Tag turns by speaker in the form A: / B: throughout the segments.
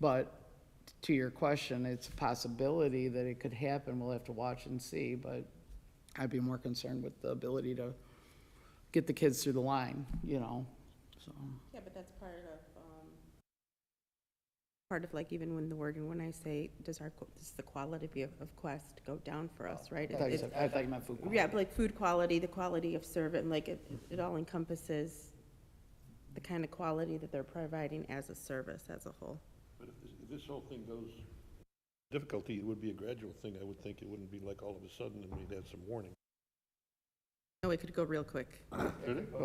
A: But to your question, it's a possibility that it could happen. We'll have to watch and see, but I'd be more concerned with the ability to get the kids through the line, you know, so.
B: Yeah, but that's part of, um. Part of like even when the word, and when I say, does our, qu- does the quality of, of Quest go down for us,
C: Oh,
B: right?
A: I thought you
B: It-
A: said- I thought you meant food
B: it-
A: quality.
B: Yeah, but like food quality, the quality of service, and like it, it all encompasses the kind of quality that they're providing as a service as a whole.
D: But if this, if this whole thing goes, difficulty, it would be a gradual thing, I would think. It wouldn't be like all of a sudden and we'd have some warning.
B: No, it Oh, could go real quick.
A: Go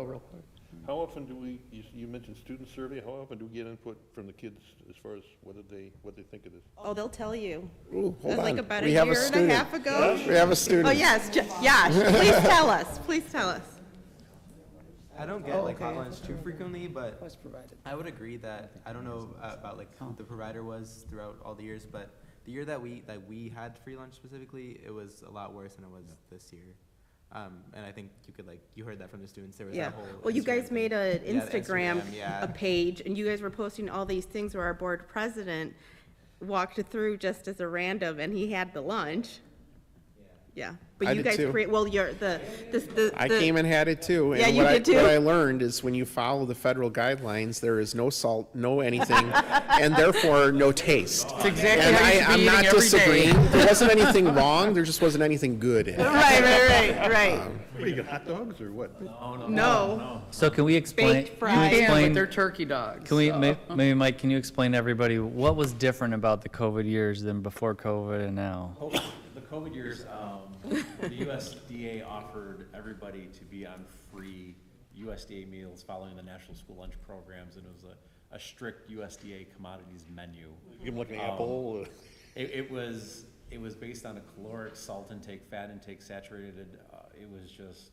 A: real quick.
D: How often do we, you, s- you mentioned student survey, how often do we get input from the kids as far as whether they, what they think of this?
B: Oh, they'll tell you.
C: Ooh, hold
B: Like
C: on.
B: about a
C: We have
B: year and a
C: student.
B: half ago.
C: We have a
B: Oh,
C: student.
B: yes, J- Josh, please tell us, please tell us.
E: I don't
B: Oh,
E: get like hotlines too frequently, but
A: Was provided.
E: I would agree that I don't know uh, about like who the provider was throughout all the years, but the year that we that we had free lunch specifically, it was a lot worse than it was this year. Um, and I think you could like you heard that from the students. There was
B: Yeah,
E: that whole.
B: well, you
E: Instagram
B: guys
E: thing.
B: made an
E: Yeah, the
B: Instagram,
E: yeah.
B: a page, and you guys were posting all these things where our board president walked through just as a random, and he had the lunch. Yeah,
C: I
B: but you
C: did
B: guys
C: too.
B: create, well, you're, the, this, the.
C: I
B: the-
C: came and had it too.
B: Yeah,
C: And
B: you
C: what I,
B: did too.
C: what I learned is when you follow the federal guidelines, there is no salt, no anything, and therefore no taste. That's
F: exactly
C: and
F: how you
C: I,
F: should be
C: I'm not
F: eating every day.
C: disagreeing. There wasn't anything wrong. There just wasn't anything good in it.
B: Right, right, right, right.
D: What, you got hot dogs or what?
C: Um,
B: No,
F: So can we explain?
B: Baked
F: can you
B: fries.
A: Yeah, but
F: explain-
A: they're turkey dogs.
F: Can we,
A: so-
F: may- maybe Mike, can you explain to everybody what was different about the COVID years than before COVID and now?
G: The COVID years, um, the USDA offered everybody to be on free USDA meals following the National School Lunch Programs, and it was a, a strict USDA commodities menu.
D: Give them like an apple? uh,
G: It, it was, it was based on a caloric, salt intake, fat intake, saturated, uh, it was just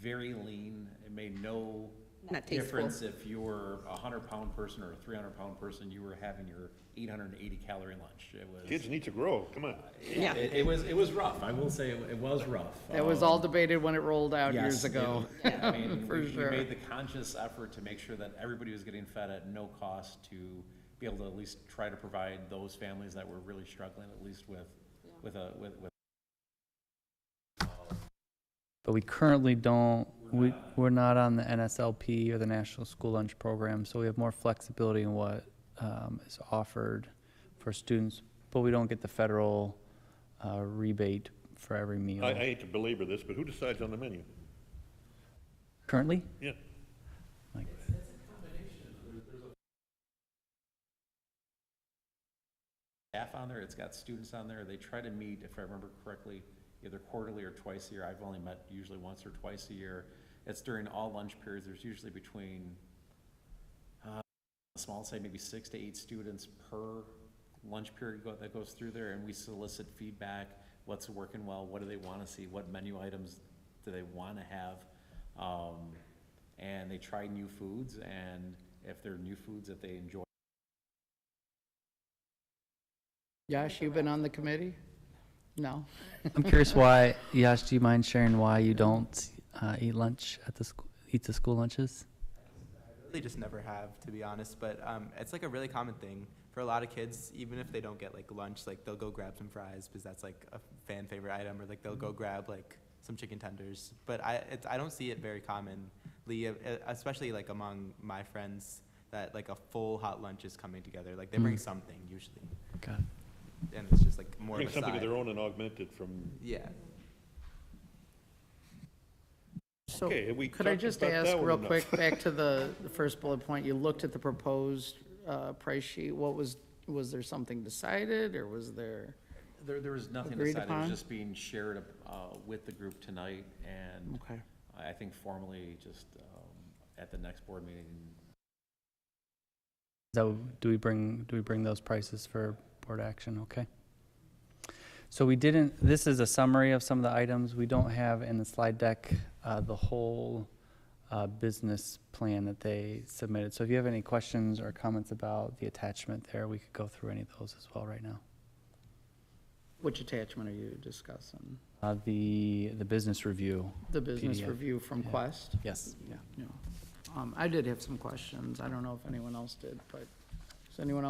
G: very lean. It made no
B: Not tasteful.
G: difference if you were a hundred pound person or a three hundred pound person, you were having your eight hundred and eighty calorie lunch. It was.
D: Kids need to grow, come on.
B: yeah.
G: It, it was, it was rough, I will say, it it was rough.
A: That was
G: Um,
A: all debated when it rolled out years
G: yes, it-
A: ago.
G: I mean,
A: For
G: we, we
A: sure.
G: made the conscious effort to make sure that everybody was getting fed at no cost to be able to at least try to provide those families that were really struggling, at least with, with a, with, with
F: But we currently don't, we, we're not on the NSLP or the National School Lunch Program, so we have more flexibility in what um, is offered for students, but we don't get the federal uh, rebate for every meal.
D: I, I hate to belabor this, but who decides on the menu?
F: Currently?
D: Yeah,
G: staff on there, it's got students on there, they try to meet, if I remember correctly, either quarterly or twice a year, I've only met usually once or twice a year. It's during all lunch periods, there's usually between, uh, small say maybe six to eight students per lunch period go- that goes through there, and we solicit feedback, what's working well, what do they wanna see, what menu items do they wanna have? Um, and they try new foods, and if there are new foods that they enjoy,
A: Josh, you been on the committee? No?
F: I'm curious why, Yash, do you mind sharing why you don't uh, eat lunch at the, sch- eat the school lunches?
E: really just never have to be honest but um, it's like a really common thing for a lot of kids even if they don't get like lunch like they'll go grab some fries because that's like a fan favorite item or like they'll
D: Mm-hmm.
E: go grab like some chicken tenders but i it's, i don't see it very commonly e- especially like among my friends that like a full hot lunch is coming together like they bring
D: Mm.
E: something usually
F: Got it.
E: and it's just like more
D: bring
E: of a
D: something of
E: side.
D: their own and augment it from,
E: yeah
A: So,
D: Okay, have we
A: could I
D: talked
A: just
D: about
A: ask
D: that one
A: real
D: enough?
A: quick, back to the, the first bullet point, you looked at the proposed, uh, price sheet, what was, was there something decided, or was there?
G: There, there was nothing
A: Agreed
G: decided, it
A: upon?
G: was just being shared, uh, with the group tonight, and
A: Okay.
G: I I think formally, just, um, at the next board meeting,
F: So do we bring, do we bring those prices for board action? Okay. So we didn't, this is a summary of some of the items. We don't have in the slide deck, uh, the whole, uh, business plan that they submitted. So if you have any questions or comments about the attachment there, we could go through any of those as well right now.
A: Which attachment are you discussing?
F: Uh, the, the business review.
A: The business
F: PDF.
A: review from Quest?
F: Yes.
A: Yeah. Um, I did have some questions, I don't know if anyone else did, but, does anyone else